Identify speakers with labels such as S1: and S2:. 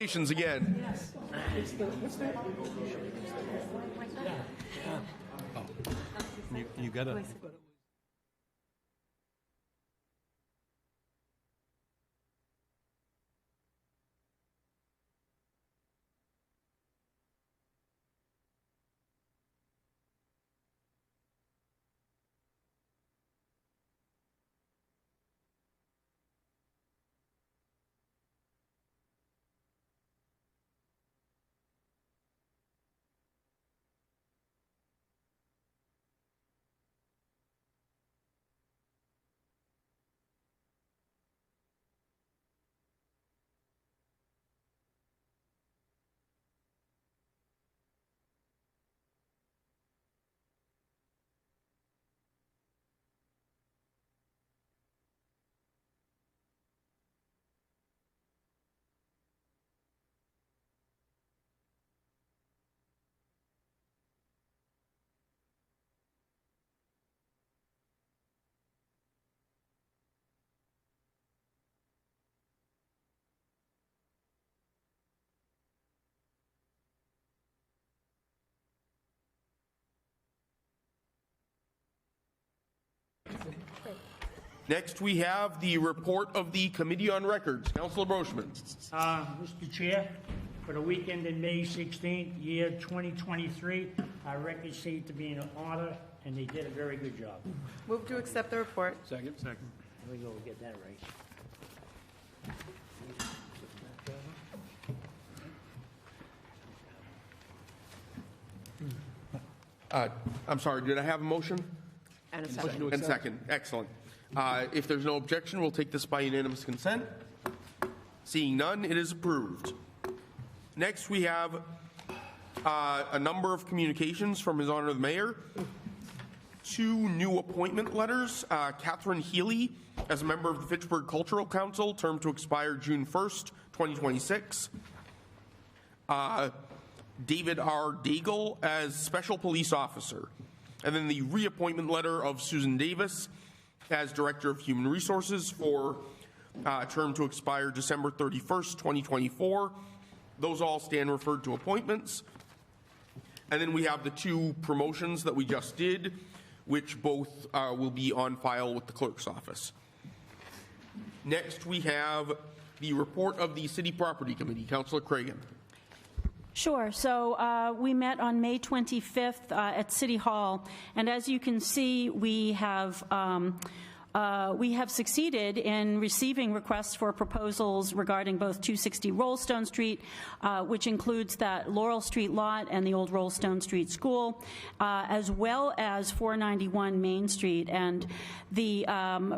S1: Congratulations again.
S2: You, you gotta.
S1: Next, we have the report of the Committee on Records. Councilor Brochman.
S3: Uh, Mr. Chair, for the weekend in May 16th, year 2023, our records seem to be in order, and they did a very good job.
S4: Move to accept the report.
S2: Second. Second.
S3: There we go, we get that right.
S1: Uh, I'm sorry, did I have a motion?
S4: And a second.
S1: And second, excellent. Uh, If there's no objection, we'll take this by unanimous consent. Seeing none, it is approved. Next, we have uh, a number of communications from His Honor the Mayor. Two new appointment letters, uh, Catherine Healy as a member of the Fitchburg Cultural Council, term to expire June 1st, 2026. Uh, David R. Daigle as Special Police Officer, and then the reappointment letter of Susan Davis as Director of Human Resources for uh, a term to expire December 31st, 2024. Those all stand referred to appointments. And then we have the two promotions that we just did, which both uh, will be on file with the clerk's office. Next, we have the report of the City Property Committee. Councilor Cragan.
S5: Sure. So uh, we met on May 25th uh, at City Hall, and as you can see, we have. um, uh, We have succeeded in receiving requests for proposals regarding both 260 Rollstone Street, uh, which includes that Laurel Street lot and the old Rollstone Street School, uh, as well as 491 Main Street. And the um,